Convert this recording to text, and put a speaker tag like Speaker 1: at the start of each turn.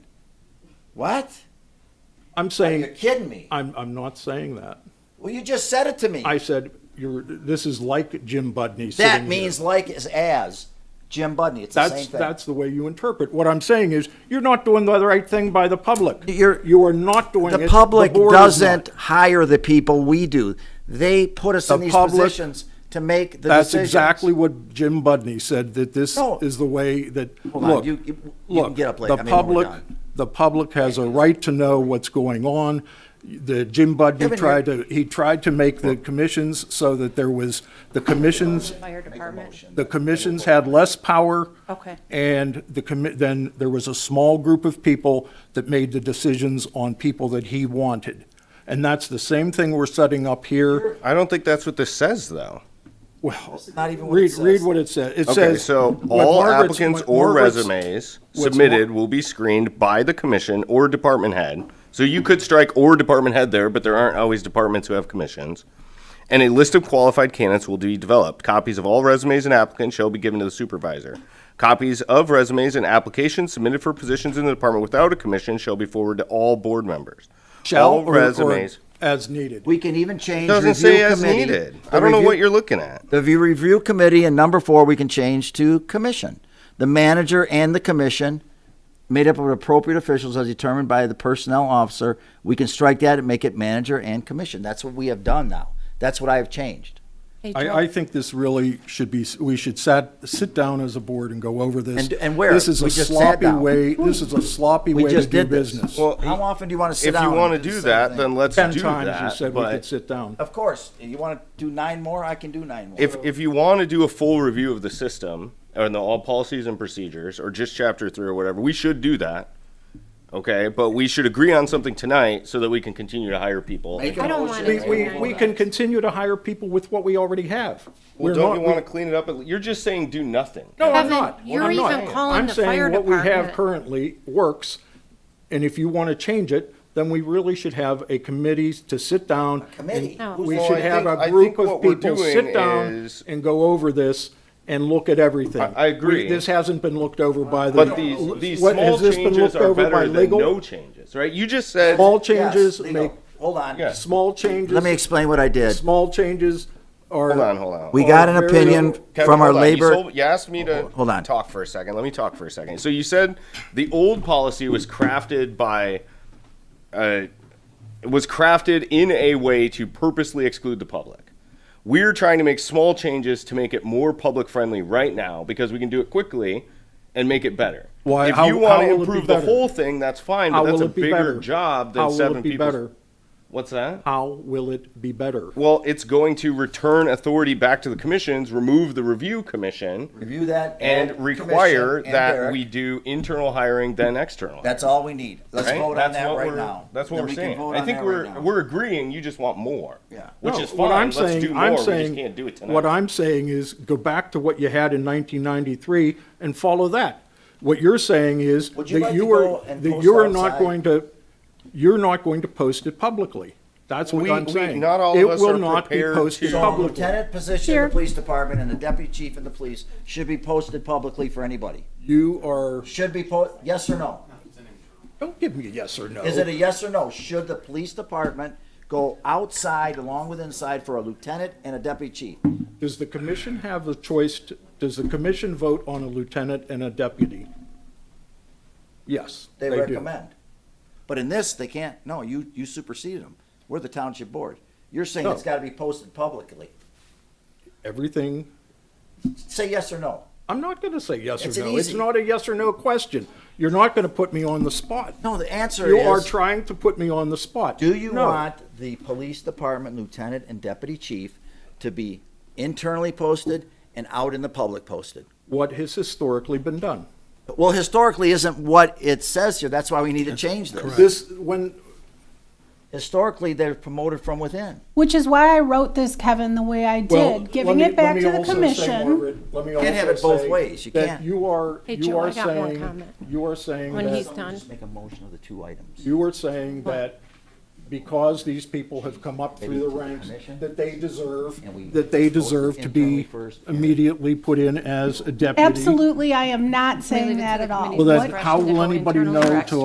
Speaker 1: What? Are
Speaker 2: I'm
Speaker 1: you
Speaker 2: saying,
Speaker 1: kidding me?
Speaker 2: I'm, I'm not saying that.
Speaker 1: Well, you just said it to me.
Speaker 2: I said, you're, this is like Jim Budney sitting
Speaker 1: That
Speaker 2: here.
Speaker 1: means like is as Jim Budney. It's the
Speaker 2: That's,
Speaker 1: same thing.
Speaker 2: that's the way you interpret. What I'm saying is, you're not doing the right thing by the public.
Speaker 1: You're-
Speaker 2: You are not doing it.
Speaker 1: the public
Speaker 2: board is not.
Speaker 1: doesn't hire the people we do. They put us
Speaker 2: The
Speaker 1: in these
Speaker 2: public-
Speaker 1: positions to make the
Speaker 2: That's
Speaker 1: decisions.
Speaker 2: exactly what Jim Budney said, that this
Speaker 1: No.
Speaker 2: is the way that,
Speaker 1: Hold on,
Speaker 2: look,
Speaker 1: you- you- you can
Speaker 2: look,
Speaker 1: get up late.
Speaker 2: the
Speaker 1: I mean, when we're
Speaker 2: public,
Speaker 1: done.
Speaker 2: the public has a right to know what's going on. The Jim Budney
Speaker 1: Kevin,
Speaker 2: tried to, he tried to make the commissions so that there was, the commissions,
Speaker 3: Fire department.
Speaker 2: the commissions had less power.
Speaker 3: Okay.
Speaker 2: And the commi, then there was a small group of people that made the decisions on people that he wanted. And that's the same thing we're setting up here.
Speaker 4: I don't think that's what this says, though.
Speaker 2: Well,
Speaker 1: Not even what it
Speaker 2: read, read
Speaker 1: says.
Speaker 2: what it says. It
Speaker 4: Okay,
Speaker 2: says.
Speaker 4: so
Speaker 2: what
Speaker 4: all
Speaker 2: Margaret's-
Speaker 4: applicants
Speaker 2: what
Speaker 4: or
Speaker 2: Margaret's-
Speaker 4: resumes
Speaker 2: what's Mar-
Speaker 4: submitted will be screened by the commission or department head. So you could strike or department head there, but there aren't always departments who have commissions. And a list of qualified candidates will be developed. Copies of all resumes and applicants shall be given to the supervisor. Copies of resumes and applications submitted for positions in the department without a commission shall be forwarded to all board members.
Speaker 2: Shall
Speaker 4: all
Speaker 2: or- or
Speaker 4: resumes
Speaker 2: As needed.
Speaker 1: We can even change.
Speaker 4: doesn't
Speaker 1: review
Speaker 4: say as
Speaker 1: committee.
Speaker 4: needed.
Speaker 1: The
Speaker 4: I don't know
Speaker 1: review-
Speaker 4: what you're looking at.
Speaker 1: The view review committee and number four, we can change to commission. The manager and the commission, made up of appropriate officials as determined by the personnel officer, we can strike that and make it manager and commission. That's what we have done now. That's what I have changed.
Speaker 3: Hey, Joe,
Speaker 2: I, I think this really should be, we should sat, sit down as a board and go over this.
Speaker 1: And- and where?
Speaker 2: This is
Speaker 1: We
Speaker 2: a
Speaker 1: just sat
Speaker 2: sloppy
Speaker 1: down.
Speaker 2: way, this is a sloppy
Speaker 1: We
Speaker 2: way to
Speaker 1: just
Speaker 2: do
Speaker 1: did this.
Speaker 2: business.
Speaker 4: Well,
Speaker 1: How often do you want to sit
Speaker 4: If
Speaker 1: down?
Speaker 4: you want to
Speaker 1: and the
Speaker 4: do
Speaker 1: same
Speaker 4: that,
Speaker 1: thing?
Speaker 4: then let's
Speaker 2: Ten
Speaker 4: do
Speaker 2: times you
Speaker 4: that.
Speaker 2: said we
Speaker 4: but-
Speaker 2: could sit down.
Speaker 1: Of course, you want to do nine more, I can do nine more.
Speaker 4: If, if you want to do a full review of the system or the all policies and procedures or just chapter three or whatever, we should do that. Okay, but we should agree on something tonight so that we can continue to hire people.
Speaker 1: Make
Speaker 4: Well,
Speaker 1: a
Speaker 3: I don't
Speaker 1: motion
Speaker 3: wanna
Speaker 2: We,
Speaker 1: to
Speaker 3: do
Speaker 2: we,
Speaker 1: table
Speaker 2: we
Speaker 1: that.
Speaker 2: can continue to hire people with what we already have. We're
Speaker 4: don't
Speaker 2: not-
Speaker 4: you want to clean it up? You're just saying do nothing.
Speaker 2: No, I'm
Speaker 3: Kevin,
Speaker 2: not.
Speaker 3: you're
Speaker 2: I'm not.
Speaker 3: even calling
Speaker 2: I'm
Speaker 3: the
Speaker 2: saying
Speaker 3: fire
Speaker 2: what we have
Speaker 3: department.
Speaker 2: Currently works, and if you want to change it, then we really should have a committee to sit down.
Speaker 1: committee?
Speaker 2: and
Speaker 3: No.
Speaker 2: We
Speaker 4: Well,
Speaker 2: should
Speaker 4: I
Speaker 2: have
Speaker 4: think-
Speaker 2: a
Speaker 4: I
Speaker 2: group
Speaker 4: think
Speaker 2: of
Speaker 4: what we're
Speaker 2: people
Speaker 4: doing
Speaker 2: sit down
Speaker 4: is-
Speaker 2: and go over this and look at everything.
Speaker 4: I- I agree.
Speaker 2: We- This hasn't been looked over by the.
Speaker 4: But these, these
Speaker 2: What-
Speaker 4: small
Speaker 2: has this been
Speaker 4: changes
Speaker 2: looked
Speaker 4: are
Speaker 2: over by
Speaker 4: better than
Speaker 2: legal?
Speaker 4: no changes, right? You just said,
Speaker 2: Small
Speaker 1: Yes,
Speaker 2: changes
Speaker 1: legal.
Speaker 2: make,
Speaker 1: Hold on.
Speaker 4: Yeah.
Speaker 2: small changes.
Speaker 1: Let me explain what I did.
Speaker 2: Small changes are.
Speaker 4: hold on, hold on.
Speaker 1: We
Speaker 2: are
Speaker 1: got an
Speaker 2: very-
Speaker 1: opinion
Speaker 4: Kevin,
Speaker 1: from our
Speaker 4: hold on. You
Speaker 1: labor.
Speaker 4: sold- You asked me to.
Speaker 1: Hold on.
Speaker 4: Talk for a second. Let me talk for a second. So you said the old policy was crafted by, uh, was crafted in a way to purposely exclude the public. We're trying to make small changes to make it more public friendly right now because we can do it quickly and make it better.
Speaker 2: Why-
Speaker 4: If
Speaker 2: how-
Speaker 4: you
Speaker 2: how
Speaker 4: want
Speaker 2: will
Speaker 4: to
Speaker 2: it be
Speaker 4: improve the
Speaker 2: better?
Speaker 4: whole thing, that's fine,
Speaker 2: How
Speaker 4: but that's
Speaker 2: will
Speaker 4: a
Speaker 2: it be
Speaker 4: bigger
Speaker 2: better?
Speaker 4: job
Speaker 2: How
Speaker 4: than
Speaker 2: will it
Speaker 4: seven
Speaker 2: be
Speaker 4: people.
Speaker 2: better?
Speaker 4: What's that?
Speaker 2: How will it be better?
Speaker 4: Well, it's going to return authority back to the commissions, remove the review commission,
Speaker 1: Review that.
Speaker 4: and
Speaker 1: commission
Speaker 4: require
Speaker 1: and
Speaker 4: that
Speaker 1: Derek.
Speaker 4: we do internal hiring then external.
Speaker 1: That's all we need. Let's
Speaker 4: right?
Speaker 1: vote on
Speaker 4: That's
Speaker 1: that
Speaker 4: what
Speaker 1: right
Speaker 4: we're-
Speaker 1: now.
Speaker 4: That's what
Speaker 1: Then
Speaker 4: we're
Speaker 1: we can
Speaker 4: saying.
Speaker 1: vote
Speaker 4: I
Speaker 1: on
Speaker 4: think
Speaker 1: that
Speaker 4: we're
Speaker 1: right now.
Speaker 4: we're agreeing. You just want more.
Speaker 1: Yeah.
Speaker 4: Which
Speaker 2: No,
Speaker 4: is fine.
Speaker 2: what I'm
Speaker 4: Let's
Speaker 2: saying-
Speaker 4: do more.
Speaker 2: I'm
Speaker 4: we
Speaker 2: saying-
Speaker 4: just can't do it tonight.
Speaker 2: What I'm saying is, go back to what you had in 1993 and follow that. What you're saying is
Speaker 1: Would you
Speaker 2: that
Speaker 1: like
Speaker 2: you
Speaker 1: to go
Speaker 2: are,
Speaker 1: and
Speaker 2: that
Speaker 1: post
Speaker 2: you are not
Speaker 1: outside?
Speaker 2: going to, you're not going to post it publicly. That's what
Speaker 4: We-
Speaker 2: I'm
Speaker 4: we-
Speaker 2: saying.
Speaker 4: not all of us
Speaker 2: It
Speaker 4: are
Speaker 2: will not be
Speaker 4: prepared
Speaker 2: posted
Speaker 4: to-
Speaker 1: So the
Speaker 2: publicly.
Speaker 1: lieutenant position in the police department and the deputy chief in the police should be posted publicly for anybody.
Speaker 2: You are,
Speaker 1: Should be po, yes or no?
Speaker 2: don't give me a yes or no.
Speaker 1: Is it a yes or no? Should the police department go outside along with inside for a lieutenant and a deputy chief?
Speaker 2: Does the commission have a choice, to- does the commission vote on a lieutenant and a deputy? Yes,
Speaker 1: They
Speaker 2: they do.
Speaker 1: recommend. But in this, they can't, no, you, you superseded them. We're the township board. You're saying it's
Speaker 2: No.
Speaker 1: gotta be posted publicly.
Speaker 2: Everything
Speaker 1: Say yes or no.
Speaker 2: I'm not going to say yes
Speaker 1: It's
Speaker 2: or
Speaker 1: an
Speaker 2: no. It's
Speaker 1: easy-
Speaker 2: not a yes or no question. You're not going to put me on the spot.
Speaker 1: No, the answer
Speaker 2: You are
Speaker 1: is,
Speaker 2: trying to put me on the spot.
Speaker 1: do you
Speaker 2: No.
Speaker 1: want the police department lieutenant and deputy chief to be internally posted and out in the public posted?
Speaker 2: what has historically been done?
Speaker 1: Well, historically isn't what it says here. That's why we need to change this.
Speaker 2: This when
Speaker 1: Historically, they're promoted from within.
Speaker 5: Which is why I wrote this, Kevin, the way I did,
Speaker 2: well, let
Speaker 5: giving
Speaker 2: me-
Speaker 5: it back
Speaker 2: let
Speaker 5: to
Speaker 2: me
Speaker 5: the
Speaker 2: also say,
Speaker 5: commission.
Speaker 2: Margaret, let me
Speaker 1: Can't have
Speaker 2: also
Speaker 1: it both
Speaker 2: say
Speaker 1: ways. You
Speaker 2: that
Speaker 1: can't.
Speaker 2: You are
Speaker 3: Hey,
Speaker 2: you
Speaker 3: Joe,
Speaker 2: are
Speaker 3: I got more
Speaker 2: saying
Speaker 3: comment.
Speaker 2: you are saying
Speaker 3: When
Speaker 2: that
Speaker 3: he's done.
Speaker 1: Just make a motion of the two items.
Speaker 2: you are saying that because these people have come up through the ranks that they deserve
Speaker 1: And we-
Speaker 2: that they deserve to
Speaker 1: Internally
Speaker 2: be
Speaker 1: first, and-
Speaker 2: immediately put in as a deputy.
Speaker 5: Absolutely, I am not
Speaker 3: leave it
Speaker 5: saying
Speaker 3: to
Speaker 5: that
Speaker 3: the
Speaker 5: at all.
Speaker 3: committee.
Speaker 2: Well, then
Speaker 3: What-
Speaker 2: how will
Speaker 3: Correct.
Speaker 2: anybody know
Speaker 3: Correct.
Speaker 2: to